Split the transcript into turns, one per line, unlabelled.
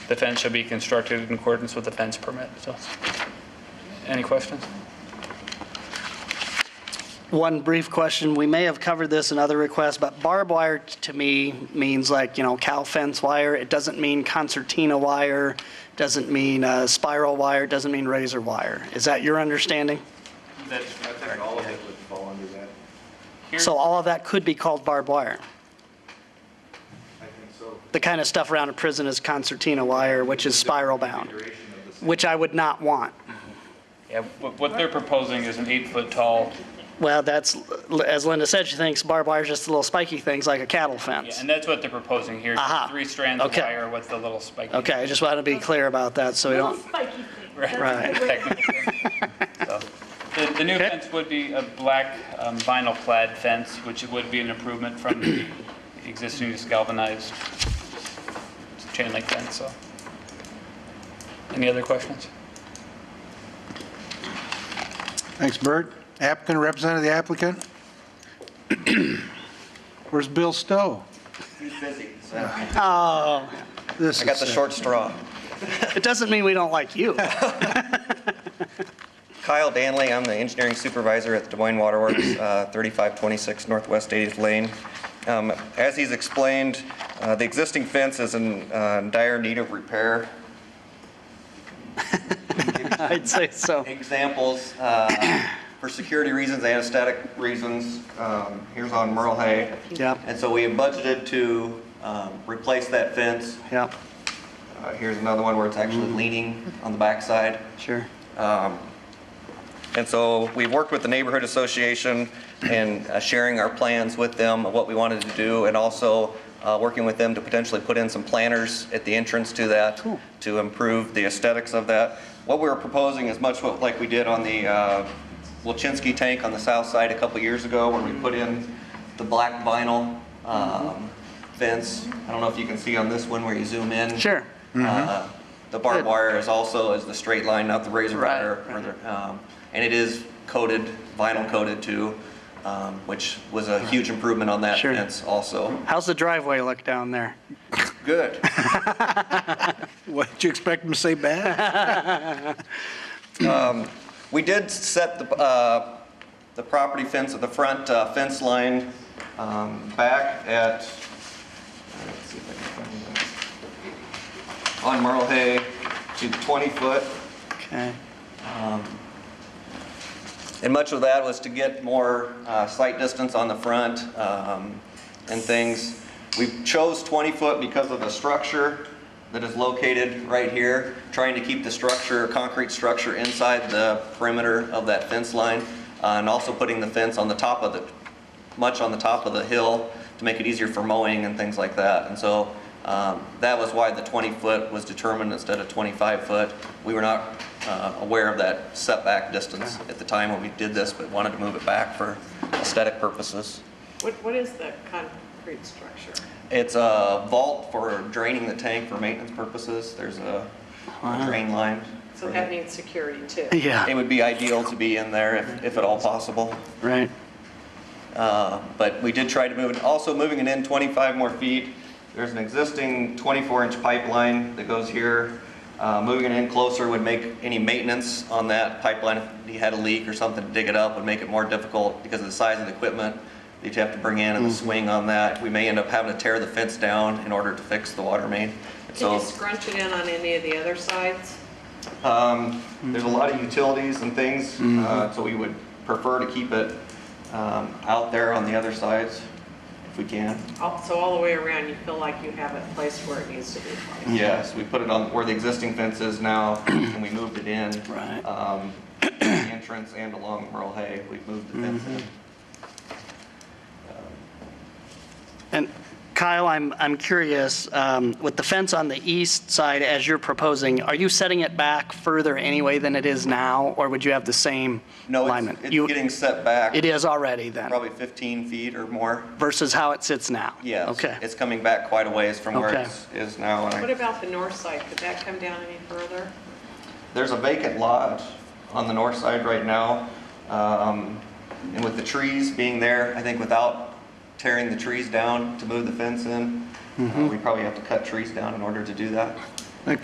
The fence shall be constructed in accordance with the fence permit, so. Any questions?
One brief question, we may have covered this in other requests, but barbed wire t- to me means like, you know, cow fence wire. It doesn't mean concertina wire, doesn't mean uh, spiral wire, doesn't mean razor wire. Is that your understanding?
That's
I think all of it would fall under that.
So all of that could be called barbed wire.
I think so.
The kind of stuff around a prison is concertina wire, which is spiral bound,
Configuration of the same.
which I would not want.
Yeah, what what they're proposing is an eight-foot tall,
Well, that's, as Linda said, she thinks barbed wire is just little spiky things like a cattle
yeah,
fence.
and that's what they're proposing here.
Aha.
Three strands of
Okay.
wire with the little spiky.
Okay, I just wanted to be clear about that, so we
Little
don't,
spiky thing.
Right.
Right.
technical term. So, The, the new
Okay.
fence would be a black um, vinyl clad fence, which would be an improvement from the existing just galvanized chain link fence, so. Any other questions?
Thanks, Bert. Applicant, representative of the applicant? Where's Bill Stowe?
oh,
This
I got the
is-
short straw.
it doesn't mean we don't like you.
Kyle Danley, I'm the engineering supervisor at the Des Moines Waterworks, uh, 3526 Northwest 80th Lane. Um, As he's explained, uh, the existing fence is in uh, dire need of repair.
I'd say so.
Examples, uh, for security reasons, anesthetic reasons, um, here's on Merle Hay.
Yep.
And so we have budgeted to um, replace that fence.
Yeah,
Uh, Here's another one where it's actually leaning on the backside.
sure.
Um, And so we've worked with the Neighborhood Association and uh, sharing our plans with them of what we wanted to do, and also uh, working with them to potentially put in some planters at the entrance to that to improve the aesthetics of that. What we're proposing is much what- like we did on the uh, Wilchinski tank on the south side a couple years ago, where we put in the black vinyl um, fence. I don't know if you can see on this one where you zoom in.
Sure.
Uh, The barbed
Good.
wire is also, is the straight line, not the razor
Right,
wire. or the- um, And it is coated, vinyl coated too, um, which was a huge improvement on that
Sure.
fence also.
How's the driveway look down there?
Good.
What, did you expect him to say bad?
We did set the, uh, the property fence at the front uh, fence line um, back at, let's see if I can find that. On Merle Hay to 20 foot.
Okay,
And much of that was to get more uh, sight distance on the front um, and things. We chose 20-foot because of the structure that is located right here, trying to keep the structure, concrete structure inside the perimeter of that fence line, uh, and also putting the fence on the top of the, much on the top of the hill to make it easier for mowing and things like that. And so um, that was why the 20-foot was determined instead of 25-foot. We were not uh, aware of that setback distance at the time when we did this, but wanted to move it back for aesthetic purposes.
What, what is the concrete structure?
It's a vault for draining the tank for maintenance purposes. There's a a drain line.
So that needs security too.
It
yeah,
would be ideal to be in there if if at all possible.
right.
Uh, But we did try to move it, also moving it in 25 more feet. There's an existing 24-inch pipeline that goes here. Uh, Moving it in closer would make any maintenance on that pipeline, if you had a leak or something, to dig it up would make it more difficult because of the size of the equipment that you have to bring in and the swing on that. We may end up having to tear the fence down in order to fix the water main.
Can
So
you scrunch it in on any of the other sides?
um, there's a lot of utilities and things, uh, so we would prefer to keep it um, out there on the other sides if we can.
All- So all the way around, you feel like you have it placed where it needs to be placed?
Yes, we put it on where the existing fence is now, and we moved it in.
Right.
um, The entrance and along Merle Hay, we moved the fence
Mm-hmm.
in.
And Kyle, I'm, I'm curious, um, with the fence on the east side as you're proposing, are you setting it back further anyway than it is now, or would you have the same
No, it's-
alignment?
it's
You-
getting set back
It is already then,
probably 15 feet or more.
versus how it sits now?
Yes.
Okay,
It's coming back quite a ways from where
Okay.
it is now. and I-
What about the north side? Could that come down any further?
There's a vacant lot on the north side right now, um, and with the trees being there, I think without
Mm-hmm.
tearing the trees down to move the fence in, uh, we probably have to cut trees down in order to do that.